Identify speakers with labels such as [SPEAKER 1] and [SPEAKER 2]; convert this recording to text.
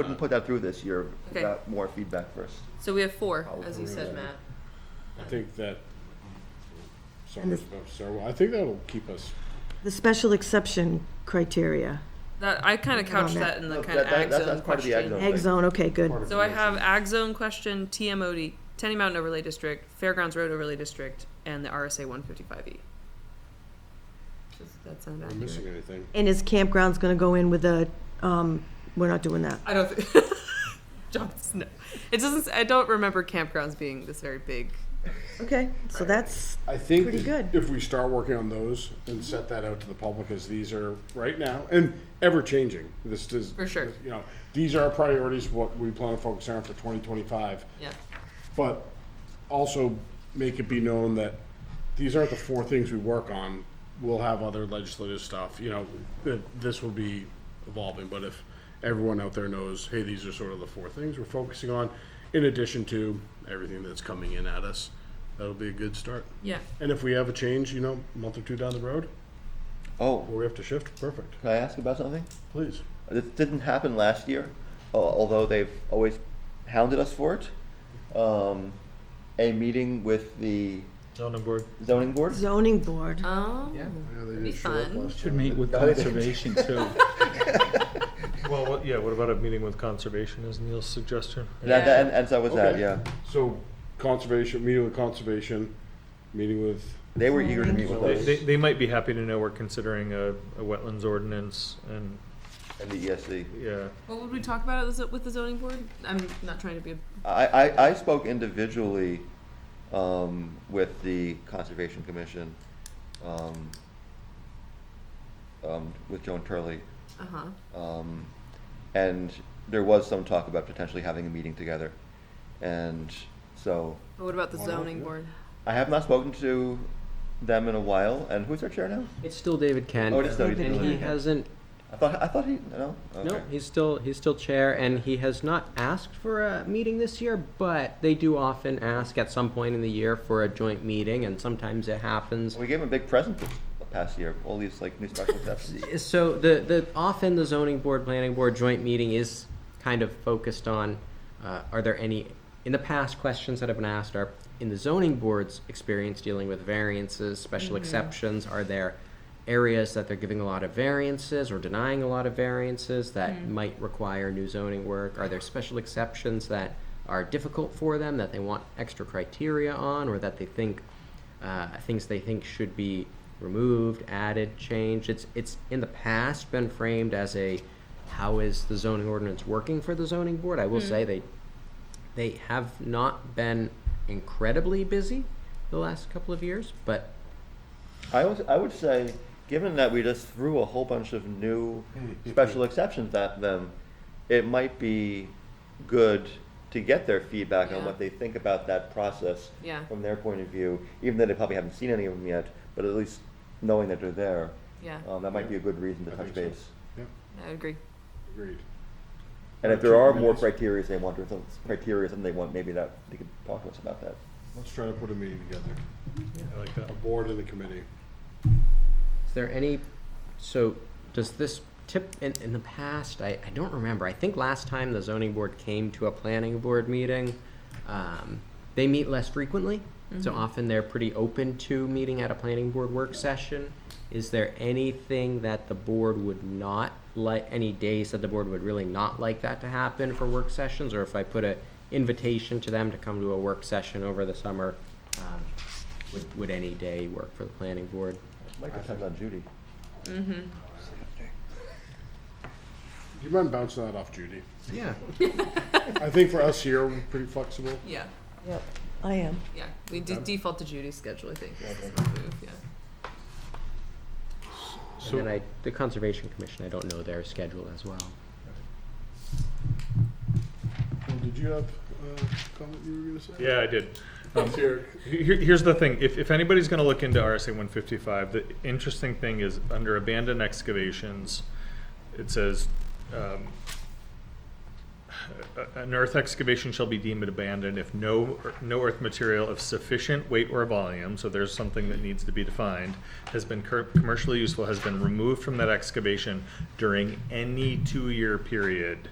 [SPEAKER 1] Wouldn't put that through this year
[SPEAKER 2] Okay.
[SPEAKER 1] without more feedback first.
[SPEAKER 2] So we have four,
[SPEAKER 1] I'll
[SPEAKER 2] as you
[SPEAKER 1] agree
[SPEAKER 2] said,
[SPEAKER 1] with that.
[SPEAKER 2] Matt.
[SPEAKER 3] I think that, sorry,
[SPEAKER 4] And this-
[SPEAKER 3] oh, sorry, well, I think that'll keep us,
[SPEAKER 4] The special exception criteria,
[SPEAKER 2] That I kind of couched
[SPEAKER 4] Matt.
[SPEAKER 2] that in the
[SPEAKER 1] Look,
[SPEAKER 2] kind of
[SPEAKER 1] that- that-
[SPEAKER 2] ag
[SPEAKER 1] that's-
[SPEAKER 2] zone
[SPEAKER 1] that's part of the ag
[SPEAKER 2] question.
[SPEAKER 1] zone.
[SPEAKER 4] egg zone, okay, good.
[SPEAKER 2] So I have ag zone question, TMOD, Tenny Mountain Overlay District, Fairgrounds Road Overlay District, and the RSA 155E. Does E. that sound
[SPEAKER 3] we're missing
[SPEAKER 2] accurate?
[SPEAKER 3] anything.
[SPEAKER 4] And is campgrounds gonna go in with a, um, we're not doing that.
[SPEAKER 2] I don't. think John's no. It doesn't. s- I don't remember campgrounds being this very big.
[SPEAKER 4] Okay, so that's,
[SPEAKER 3] I think
[SPEAKER 4] Pretty
[SPEAKER 3] that
[SPEAKER 4] good.
[SPEAKER 3] if we start working on those and set that out to the public as these are right now and ever changing, this does.
[SPEAKER 2] For sure.
[SPEAKER 3] You know, these are our priorities, what we plan to focus on for twenty twenty-five.
[SPEAKER 2] Yeah.
[SPEAKER 3] But also make it be known that these aren't the four things we work on. We'll have other legislative stuff, you know, that this will be evolving, but if everyone out there knows, hey, these are sort of the four things we're focusing on, in addition to everything that's coming in at us, that'll be a good start.
[SPEAKER 2] Yeah.
[SPEAKER 3] And if we have a change, you know, a month or two down the road,
[SPEAKER 1] Oh,
[SPEAKER 3] where we have to shift, perfect,
[SPEAKER 1] can I ask about something?
[SPEAKER 3] please.
[SPEAKER 1] This didn't happen last year, uh, although they've always hounded us for it. Um, a meeting with the
[SPEAKER 5] zoning board.
[SPEAKER 1] zoning board.
[SPEAKER 4] zoning board,
[SPEAKER 2] Oh.
[SPEAKER 3] Yeah, they
[SPEAKER 2] Be
[SPEAKER 3] did show up
[SPEAKER 2] fun.
[SPEAKER 3] last
[SPEAKER 6] Should
[SPEAKER 3] time.
[SPEAKER 6] meet with
[SPEAKER 1] No, they-
[SPEAKER 6] conservation too.
[SPEAKER 5] Well, what, yeah, what about a meeting with conservation is Neil's suggestion?
[SPEAKER 1] That, that, and, and so was that,
[SPEAKER 3] Okay.
[SPEAKER 1] yeah.
[SPEAKER 3] So conservation, meeting with conservation, meeting with,
[SPEAKER 1] They were eager to meet with
[SPEAKER 5] They,
[SPEAKER 1] us
[SPEAKER 5] they, they might be happy to know we're considering a, a wetlands ordinance and,
[SPEAKER 1] and the E ESC.
[SPEAKER 5] yeah.
[SPEAKER 2] What would we talk about at the zo- with the zoning board? I'm not trying to be. A,
[SPEAKER 1] I, I, I spoke individually um, with the Conservation Commission, um, um, with Joan Turley,
[SPEAKER 2] uh huh.
[SPEAKER 1] um, and there was some talk about potentially having a meeting together. And so
[SPEAKER 2] But what about the
[SPEAKER 3] Why not?
[SPEAKER 2] zoning
[SPEAKER 3] Yeah.
[SPEAKER 2] board?
[SPEAKER 1] I have not spoken to them in a while. And who's our chair now?
[SPEAKER 7] It's still David Kent.
[SPEAKER 1] Oh, it is David
[SPEAKER 7] And
[SPEAKER 1] Kent.
[SPEAKER 7] he hasn't,
[SPEAKER 1] I thought I thought he no. Okay.
[SPEAKER 7] no, he's still, he's still chair, and he has not asked for a meeting this year, but they do often ask at some point in the year for a joint meeting, and sometimes it happens.
[SPEAKER 1] we gave him a big present this past year. All these like new special exceptions.
[SPEAKER 7] So the, the, often the zoning board, planning board joint meeting is kind of focused on, uh, are there any, in the past, questions that have been asked are, in the zoning board's experience dealing with variances, special exceptions, are there areas that they're giving a lot of variances or denying a lot of variances that might require new zoning work? Are there special exceptions that are difficult for them, that they want extra criteria on, or that they think uh, things they think should be removed, added, changed. It's it's in the past been framed as a how is the zoning ordinance working for the zoning board? I will say they they have not been incredibly busy the last couple of years, but
[SPEAKER 1] I would, I would say, given that we just threw a whole bunch of new special exceptions at them, it might be good to get their feedback on
[SPEAKER 2] Yeah.
[SPEAKER 1] what they think about that process
[SPEAKER 2] Yeah.
[SPEAKER 1] from their point of view, even though they probably haven't seen any of them yet, but at least knowing that they're there,
[SPEAKER 2] Yeah,
[SPEAKER 1] um, that might be a good reason to
[SPEAKER 3] I
[SPEAKER 1] touch
[SPEAKER 3] think so.
[SPEAKER 1] base.
[SPEAKER 2] I agree.
[SPEAKER 3] agreed.
[SPEAKER 1] And if
[SPEAKER 3] Or
[SPEAKER 1] there
[SPEAKER 3] two
[SPEAKER 1] are more
[SPEAKER 3] committees.
[SPEAKER 1] criteria they want, or some criteria something they want, maybe that, they could talk to us about that.
[SPEAKER 3] Let's try to put a meeting together,
[SPEAKER 5] I like that.
[SPEAKER 3] a board and a committee.
[SPEAKER 7] Is there any, so does this tip, in, in the past, I, I don't remember, I think last time the zoning board came to a planning board meeting, um, they meet less frequently, so often they're pretty open to meeting at a planning board work session. Is there anything that the board would not like, any days that the board would really not like that to happen for work sessions? Or if I put a invitation to them to come to a work session over the summer, um, would, would any day work for the planning board?
[SPEAKER 1] Might depend on Judy.
[SPEAKER 3] Do you mind bouncing that off Judy?
[SPEAKER 7] Yeah.
[SPEAKER 3] I think for us here, we're pretty flexible.
[SPEAKER 2] Yeah,
[SPEAKER 4] yep, I am.
[SPEAKER 2] yeah. We de- default to Judy's schedule, I think. is
[SPEAKER 1] Okay.
[SPEAKER 2] the move, Yeah.
[SPEAKER 7] And then I, the Conservation Commission, I don't know their schedule as well.
[SPEAKER 3] Well, did you have uh, a comment you were going to say?
[SPEAKER 5] Yeah, I did.
[SPEAKER 3] Um, here.
[SPEAKER 5] Here, here's the thing, if, if anybody's gonna look into RSA one fifty-five, the interesting thing is, under abandoned excavations, it says, um, "A- an earth excavation shall be deemed abandoned if no, ear- no earth material of sufficient weight or volume, so there's something that needs to be defined, has been cur- commercially useful, has been removed from that excavation during any two-year period